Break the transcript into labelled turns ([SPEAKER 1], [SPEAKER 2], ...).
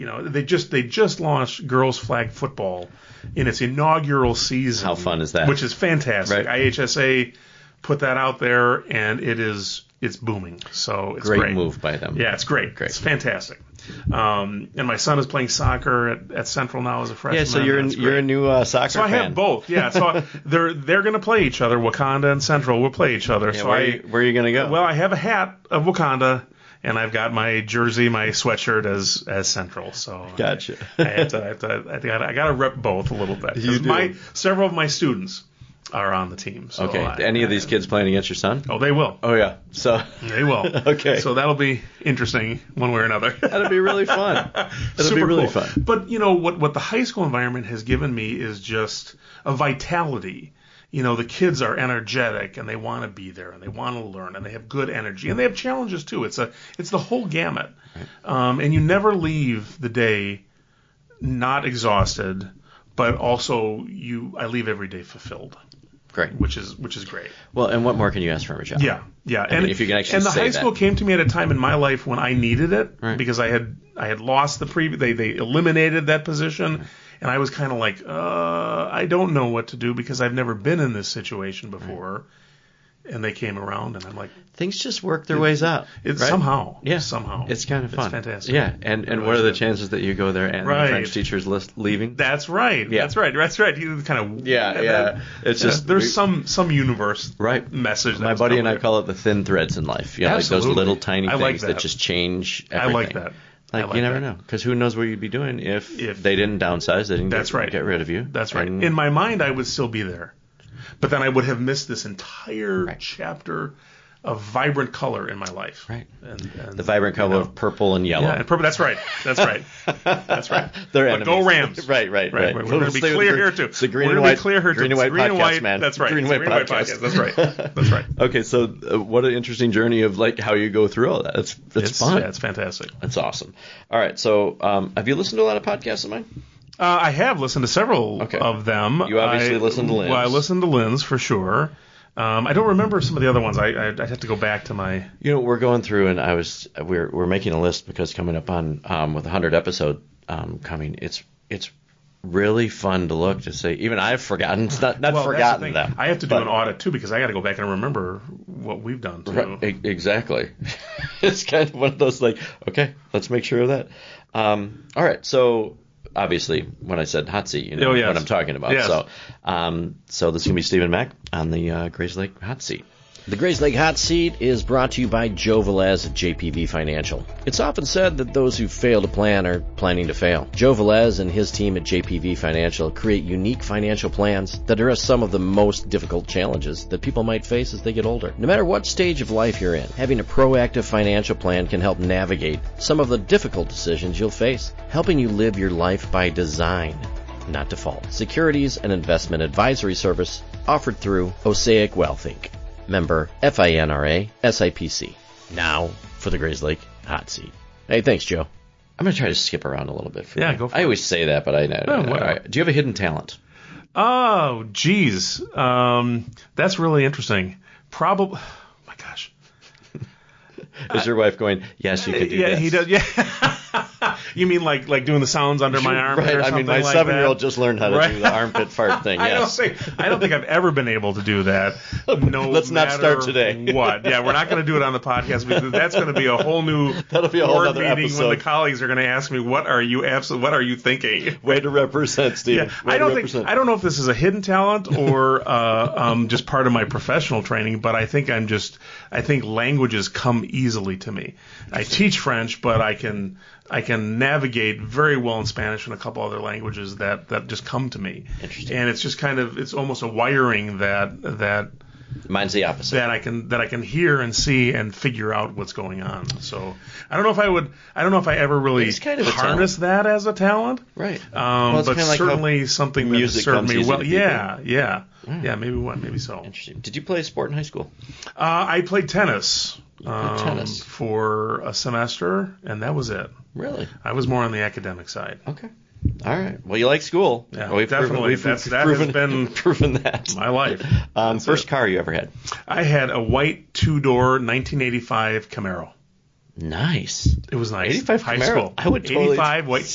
[SPEAKER 1] You know, they just they just launched girls flag football in its inaugural season.
[SPEAKER 2] How fun is that?
[SPEAKER 1] Which is fantastic.
[SPEAKER 2] Right.
[SPEAKER 1] IHSA put that out there, and it is it's booming. So it's
[SPEAKER 2] Great,
[SPEAKER 1] great,
[SPEAKER 2] move by them.
[SPEAKER 1] Yeah, it's great.
[SPEAKER 2] Great.
[SPEAKER 1] It's fantastic. Um, and my son is playing soccer at, at Central now as a freshman.
[SPEAKER 2] Yeah, so you're
[SPEAKER 1] That's
[SPEAKER 2] you're
[SPEAKER 1] great.
[SPEAKER 2] a new uh, soccer
[SPEAKER 1] So I
[SPEAKER 2] fan.
[SPEAKER 1] have both. Yeah, so they're they're going to play each other. Wakanda and Central will play each other.
[SPEAKER 2] Yeah,
[SPEAKER 1] so
[SPEAKER 2] where,
[SPEAKER 1] I
[SPEAKER 2] are you, where are you gonna go?
[SPEAKER 1] well, I have a hat of Wakanda, and I've got my jersey, my sweatshirt as as Central. So
[SPEAKER 2] Gotcha.
[SPEAKER 1] I, have to, I, have to, I think I, I got to rep both a little bit. 'Cause
[SPEAKER 2] You do.
[SPEAKER 1] My several of my students are on the team. So
[SPEAKER 2] okay.
[SPEAKER 1] I-
[SPEAKER 2] Any of these kids playing against your son?
[SPEAKER 1] Oh, they will.
[SPEAKER 2] Oh yeah. So
[SPEAKER 1] They will.
[SPEAKER 2] Okay.
[SPEAKER 1] So that'll be interesting one way or another.
[SPEAKER 2] that'll be really fun. That'll
[SPEAKER 1] Super
[SPEAKER 2] be really
[SPEAKER 1] cool.
[SPEAKER 2] fun.
[SPEAKER 1] But you know what? What the high school environment has given me is just a vitality. You know, the kids are energetic and they want to be there and they want to learn and they have good energy and they have challenges too. It's a it's the whole gamut, um, and you never leave the day not exhausted, but also you I leave every day fulfilled,
[SPEAKER 2] Great.
[SPEAKER 1] which is which is great.
[SPEAKER 2] Well, and what more can you ask from a job?
[SPEAKER 1] Yeah, yeah. and
[SPEAKER 2] mean, if you can actually
[SPEAKER 1] and the
[SPEAKER 2] say
[SPEAKER 1] high
[SPEAKER 2] that.
[SPEAKER 1] school came to me at a time in my life when I needed it
[SPEAKER 2] Right.
[SPEAKER 1] because I had I had lost the previous they they eliminated that position and I was kind of like uh I don't know what to do because I've never been in this situation before and they came around and I'm like
[SPEAKER 2] Things just work their ways out.
[SPEAKER 1] it's
[SPEAKER 2] right?
[SPEAKER 1] somehow
[SPEAKER 2] Yeah.
[SPEAKER 1] somehow
[SPEAKER 2] It's kind of fun.
[SPEAKER 1] it's fantastic
[SPEAKER 2] Yeah. And and
[SPEAKER 1] really
[SPEAKER 2] what are the
[SPEAKER 1] is.
[SPEAKER 2] chances that you go there and the
[SPEAKER 1] Right.
[SPEAKER 2] French teacher's list leaving?
[SPEAKER 1] that's right
[SPEAKER 2] Yeah.
[SPEAKER 1] that's right that's right you kind of
[SPEAKER 2] Yeah, yeah. It's just-
[SPEAKER 1] there's
[SPEAKER 2] we-
[SPEAKER 1] some some universe
[SPEAKER 2] Right.
[SPEAKER 1] message that
[SPEAKER 2] My
[SPEAKER 1] was
[SPEAKER 2] buddy and
[SPEAKER 1] coming.
[SPEAKER 2] I call it the thin threads in life. Yeah, like
[SPEAKER 1] Absolutely.
[SPEAKER 2] those little tiny
[SPEAKER 1] I
[SPEAKER 2] things
[SPEAKER 1] like
[SPEAKER 2] that.
[SPEAKER 1] that.
[SPEAKER 2] just change
[SPEAKER 1] I
[SPEAKER 2] everything.
[SPEAKER 1] like that. I
[SPEAKER 2] Like,
[SPEAKER 1] like
[SPEAKER 2] you never
[SPEAKER 1] that.
[SPEAKER 2] know, because who knows what you'd be doing if,
[SPEAKER 1] If-
[SPEAKER 2] they didn't downsize, they didn't
[SPEAKER 1] That's
[SPEAKER 2] get,
[SPEAKER 1] right.
[SPEAKER 2] get rid of you.
[SPEAKER 1] That's right.
[SPEAKER 2] And
[SPEAKER 1] In my mind, I would still be there, but then I would have missed this entire chapter of vibrant color in my life.
[SPEAKER 2] Right.
[SPEAKER 1] And, and
[SPEAKER 2] the vibrant color of purple and yellow.
[SPEAKER 1] yeah, and purple. That's right. That's right. That's right.
[SPEAKER 2] They're
[SPEAKER 1] But go
[SPEAKER 2] enemies.
[SPEAKER 1] Rams.
[SPEAKER 2] right, right,
[SPEAKER 1] Right,
[SPEAKER 2] right.
[SPEAKER 1] we're going to be
[SPEAKER 2] Stay with
[SPEAKER 1] clear
[SPEAKER 2] the
[SPEAKER 1] here
[SPEAKER 2] green-
[SPEAKER 1] too.
[SPEAKER 2] It's the green
[SPEAKER 1] we're
[SPEAKER 2] and
[SPEAKER 1] gonna
[SPEAKER 2] white,
[SPEAKER 1] be clear here too.
[SPEAKER 2] green and
[SPEAKER 1] It's
[SPEAKER 2] white
[SPEAKER 1] green
[SPEAKER 2] podcast,
[SPEAKER 1] and white.
[SPEAKER 2] man.
[SPEAKER 1] That's right.
[SPEAKER 2] Green and
[SPEAKER 1] It's
[SPEAKER 2] white
[SPEAKER 1] green and white
[SPEAKER 2] podcast.
[SPEAKER 1] podcast. That's right. That's right.
[SPEAKER 2] okay, so uh, what an interesting journey of like how you go through all that. That's that's
[SPEAKER 1] it's
[SPEAKER 2] fun.
[SPEAKER 1] yeah, it's fantastic.
[SPEAKER 2] that's awesome. All right, so um, have you listened to a lot of podcasts of mine?
[SPEAKER 1] Uh, I have listened to several
[SPEAKER 2] Okay.
[SPEAKER 1] of them.
[SPEAKER 2] You obviously
[SPEAKER 1] I,
[SPEAKER 2] listened to Lynn's.
[SPEAKER 1] Well, I listened to Lynn's for sure. Um, I don't remember some of the other ones. I, I I'd have to go back to my.
[SPEAKER 2] You know, we're going through, and I was we're we're making a list because coming up on um, with a hundred episode um, coming, it's it's really fun to look to see. Even I've forgotten, it's not not
[SPEAKER 1] Well, that's the
[SPEAKER 2] forgotten
[SPEAKER 1] thing.
[SPEAKER 2] them.
[SPEAKER 1] I have to do
[SPEAKER 2] but-
[SPEAKER 1] an audit too because I got to go back and remember what we've done too.
[SPEAKER 2] Right, e- exactly. it's kind of one of those like, okay, let's make sure of that. Um, all right, so obviously when I said hot seat, you know
[SPEAKER 1] Oh, yes.
[SPEAKER 2] what I'm talking about.
[SPEAKER 1] Yes.
[SPEAKER 2] So, um, so this is gonna be Stephen Mack on the uh, Grays Lake hot seat. The Grays Lake Hot Seat is brought to you by Joe Velez at JPV Financial. It's often said that those who fail to plan are planning to fail. Joe Velez and his team at JPV Financial create unique financial plans that address some of the most difficult challenges that people might face as they get older. No matter what stage of life you're in, having a proactive financial plan can help navigate some of the difficult decisions you'll face, helping you live your life by design not default. Securities and investment advisory service offered through Osaic Wealth Inc. Member FINRA SIPC. Now for the Grays Lake hot seat. Hey, thanks, Joe. I'm gonna try to skip around a little bit. For
[SPEAKER 1] Yeah,
[SPEAKER 2] you.
[SPEAKER 1] go for
[SPEAKER 2] I
[SPEAKER 1] it.
[SPEAKER 2] always say that, but I know.
[SPEAKER 1] Oh,
[SPEAKER 2] all
[SPEAKER 1] whatever.
[SPEAKER 2] right. Do you have a hidden talent?
[SPEAKER 1] Oh, geez, um, that's really interesting. Probably. My gosh.
[SPEAKER 2] Is your wife going? Yes, you could do
[SPEAKER 1] yeah,
[SPEAKER 2] this.
[SPEAKER 1] he does. Yeah. you mean like like doing the sounds under my arm?
[SPEAKER 2] Right.
[SPEAKER 1] Or
[SPEAKER 2] I
[SPEAKER 1] something
[SPEAKER 2] mean, my
[SPEAKER 1] like
[SPEAKER 2] seven-year-old
[SPEAKER 1] that?
[SPEAKER 2] just learned how to do
[SPEAKER 1] Right.
[SPEAKER 2] the armpit fart thing.
[SPEAKER 1] I don't
[SPEAKER 2] Yes.
[SPEAKER 1] think I don't think I've ever been able to do that. No,
[SPEAKER 2] Let's not
[SPEAKER 1] matter
[SPEAKER 2] start today.
[SPEAKER 1] What? Yeah, we're not going to do it on the podcast because that's going to be a whole new
[SPEAKER 2] That'll be a whole
[SPEAKER 1] board
[SPEAKER 2] nother
[SPEAKER 1] meeting when
[SPEAKER 2] episode.
[SPEAKER 1] the colleagues are going to ask me, "What are you absolutely? What are you thinking?"
[SPEAKER 2] Way to represent, Steve.
[SPEAKER 1] Yeah, I don't think I don't know if this is a hidden talent or uh, um, just part of my professional training, but I think I'm just I think languages come easily to me. I teach French, but I can I can navigate very well in Spanish and a couple other languages that that just come to me.
[SPEAKER 2] Interesting.
[SPEAKER 1] And it's just kind of it's almost a wiring that that
[SPEAKER 2] Mine's the opposite.
[SPEAKER 1] that I can that I can hear and see and figure out what's going on. So I don't know if I would I don't know if I ever really
[SPEAKER 2] It's kind of a
[SPEAKER 1] harness that as a talent.
[SPEAKER 2] right.
[SPEAKER 1] Um,
[SPEAKER 2] Well, it's
[SPEAKER 1] but
[SPEAKER 2] kinda like how
[SPEAKER 1] certainly something that
[SPEAKER 2] music
[SPEAKER 1] has served
[SPEAKER 2] comes
[SPEAKER 1] me
[SPEAKER 2] easy
[SPEAKER 1] well.
[SPEAKER 2] to people. Hmm.
[SPEAKER 1] Yeah, yeah, yeah. Maybe one, maybe so. Uh,
[SPEAKER 2] Interesting. Did you play a sport in high school?
[SPEAKER 1] I played tennis, um,
[SPEAKER 2] tennis.
[SPEAKER 1] for a semester, and that was it.
[SPEAKER 2] Really?
[SPEAKER 1] I was more on the academic side.
[SPEAKER 2] Okay. All right. Well, you like school.
[SPEAKER 1] Yeah,
[SPEAKER 2] Well,
[SPEAKER 1] definitely. That's- that has
[SPEAKER 2] proven,
[SPEAKER 1] been
[SPEAKER 2] proven that.
[SPEAKER 1] My life.
[SPEAKER 2] Um,
[SPEAKER 1] That's
[SPEAKER 2] first
[SPEAKER 1] it.
[SPEAKER 2] car you ever had.
[SPEAKER 1] I had a white two-door 1985 Camaro.
[SPEAKER 2] Nice.
[SPEAKER 1] It was nice.
[SPEAKER 2] 85
[SPEAKER 1] high
[SPEAKER 2] Camaro.
[SPEAKER 1] school.
[SPEAKER 2] I would totally-
[SPEAKER 1] 85 white